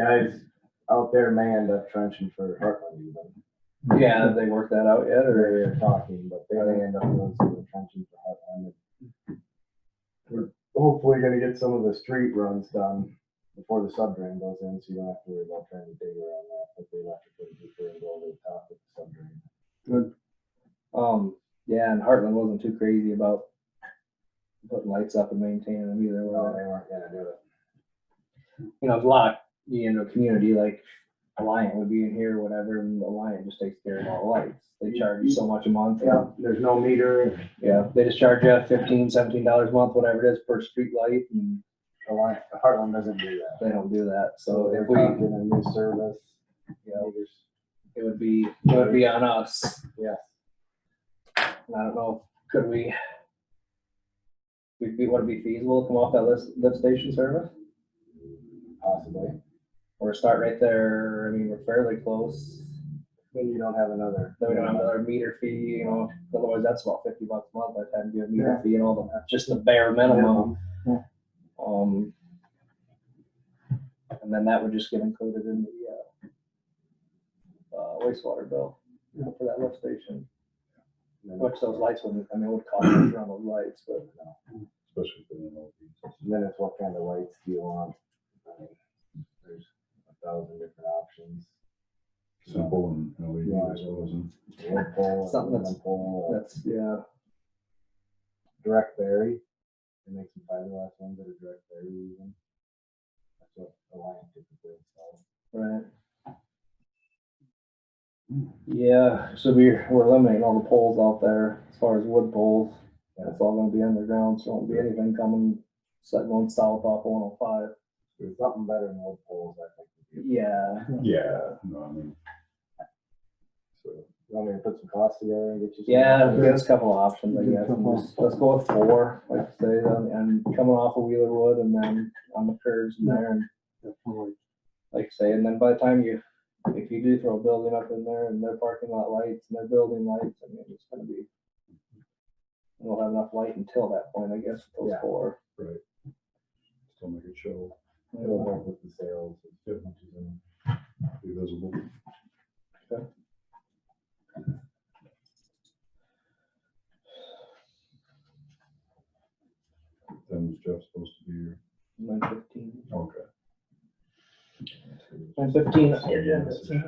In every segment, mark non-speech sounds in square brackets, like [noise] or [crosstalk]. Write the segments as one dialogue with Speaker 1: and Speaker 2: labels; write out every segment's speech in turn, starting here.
Speaker 1: Guys out there may end up trenching for Heartland even.
Speaker 2: Yeah, have they worked that out yet, or?
Speaker 1: They're talking, but they may end up doing some trenching for Heartland. We're hopefully gonna get some of the street runs done before the sub drain goes in, so you don't have to worry about trying to dig around that, but they left it pretty deeper and go over the top of the sub drain.
Speaker 2: Um, yeah, and Heartland wasn't too crazy about putting lights up and maintaining them either.
Speaker 1: Well,
Speaker 2: Well,
Speaker 1: they weren't gonna do it.
Speaker 2: you know, there's a lot of, you know, community like Alliant would be in here, or whatever, and Alliant just takes care of all the lights. They charge you so much a month.
Speaker 1: Yeah, there's no meter,
Speaker 2: Yeah, they just charge you fifteen, seventeen dollars a month, whatever it is, per street light, and
Speaker 1: Alliant- Heartland doesn't do that.
Speaker 2: they don't do that. So
Speaker 1: They're
Speaker 2: if we,
Speaker 1: talking a new service.
Speaker 2: you know, it would be, it would be on us.
Speaker 1: Yes.
Speaker 2: I don't know, could we? Would be, would it be feasible to come off that list, lift station service?
Speaker 1: Possibly.
Speaker 2: or start right there. I mean, we're fairly close.
Speaker 1: Then you don't have another.
Speaker 2: Then we don't have another meter fee, you know, otherwise that's about fifty bucks a month by the time you do a meter
Speaker 1: Yeah.
Speaker 2: fee and all the, just the bare minimum. Um. And then that would just get included in the, uh, uh, wastewater bill for that lift station,
Speaker 1: And
Speaker 2: which those lights wouldn't, I mean, it would cost us around those lights, but
Speaker 3: especially for the MLB.
Speaker 1: Then it's what kind of lights do you want? I mean, There's a thousand different options.
Speaker 3: Simple and LED,
Speaker 1: Yeah.
Speaker 3: I suppose. and-
Speaker 1: Wood pole,
Speaker 2: Something
Speaker 1: aluminum
Speaker 2: that's-
Speaker 1: pole, uh,
Speaker 2: that's, yeah.
Speaker 1: direct berry. They make some fiberglass ones that are direct berry even. That's what Alliant typically installs.
Speaker 2: Right. Yeah, so we're, we're eliminating all the poles out there as far as wood poles. That's all gonna be underground, so won't be anything coming, so going south off one oh five.
Speaker 1: There's something better than wood poles, I think. would be-
Speaker 2: Yeah,
Speaker 3: Yeah, no, I mean. So,
Speaker 1: You want me to put some costs together and get you? some-
Speaker 2: yeah, there's a couple of options, I guess. and just- Let's go with four, like I say, and, and coming off of Wheeler Wood and then on the curves in there and like I say, and then by the time you, if you do throw a building up in there and their parking lot lights and their building lights, I mean, it's gonna be. We'll have enough light until that point, I guess, with those
Speaker 1: Yeah.
Speaker 2: four.
Speaker 3: still make it show,
Speaker 1: It'll help with the sales.
Speaker 3: Yep.
Speaker 1: um,
Speaker 3: be visible. Then is Jeff supposed to be here?
Speaker 2: Nine fifteen.
Speaker 3: Okay.
Speaker 2: Nine fifteen.
Speaker 3: Yeah, that's it.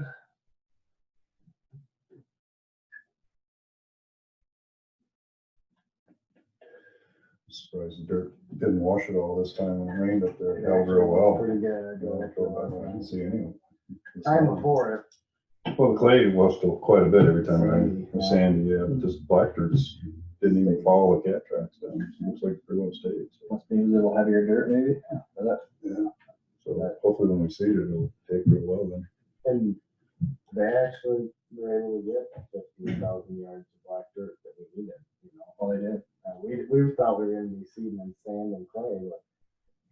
Speaker 3: Surprised the dirt didn't wash it all this time when it rained up there. It held real well.
Speaker 1: Pretty good. I
Speaker 3: You know, I drove by there, I
Speaker 1: drove
Speaker 3: didn't see any.
Speaker 1: by. Time before, it
Speaker 3: Well, the clay washed up quite a bit every time, it rained.
Speaker 1: Sandy, yeah.
Speaker 3: sandy, yeah, but this black dirt just didn't even follow the cat tracks down. It Looks like it pretty well stayed. so.
Speaker 2: Must be a little heavier dirt, maybe. Is that-
Speaker 3: So hopefully when we seed it, it'll take real well then.
Speaker 1: And they actually were able to get fifteen thousand yards of black dirt that we needed, you know.
Speaker 2: All they did.
Speaker 1: Uh, we, we thought we were gonna be seeding in sand and clay, but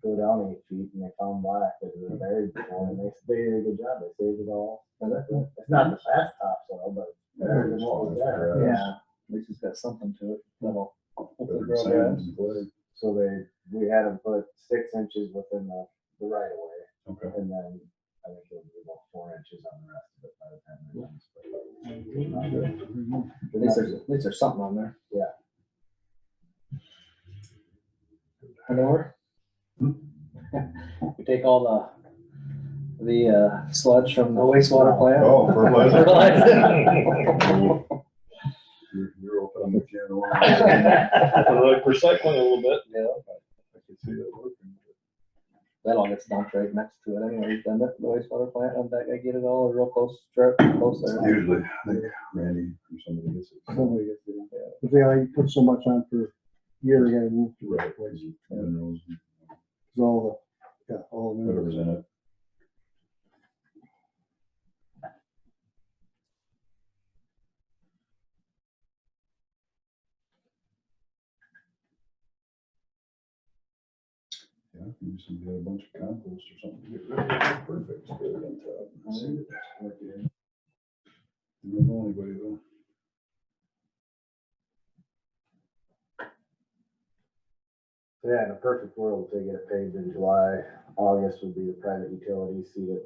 Speaker 1: go down eight feet and they found black that was buried before and they, they did a good job. They saved it all.
Speaker 2: Is that good?
Speaker 1: It's not the fast topsoil, but it's better than what was there.
Speaker 2: Yeah, at least it's got something to it. That'll hopefully
Speaker 3: Better than
Speaker 2: grow
Speaker 3: sand
Speaker 2: grass.
Speaker 3: and clay.
Speaker 1: So they, we had them put six inches within the, the right of way
Speaker 3: Okay.
Speaker 1: and then I think it'll be about four inches on the rest of it by the time they're done.
Speaker 2: At least there's, at least there's something on there.
Speaker 1: Yeah.
Speaker 2: Handover? [laughs] We take all the, the uh, sludge from the wastewater plant.
Speaker 3: Oh, fertilizer.
Speaker 2: [laughs] Fertilizer. [laughs]
Speaker 3: You're, you're opening the can of worms.
Speaker 2: [laughs]
Speaker 4: Like recycling a little bit.
Speaker 2: Yeah,
Speaker 3: I can see that working.
Speaker 2: that all gets dumped right next to it anyways, then the the wastewater plant, and that I get it all real close, strip, close there.
Speaker 3: Usually, I think Randy or somebody gets it.
Speaker 5: Somebody gets it, yeah. But they only put so much on per year, they gotta move to
Speaker 3: Right, minerals,
Speaker 5: cause all the, yeah, all the minerals.
Speaker 3: whatever's in it. Yeah, maybe somebody had a bunch of compost or something to get rid of it, perfect, put it on top. and seed it. You Don't know anybody though.
Speaker 1: So yeah, in a perfect world, they get it paved in July, August would be the private utility, see it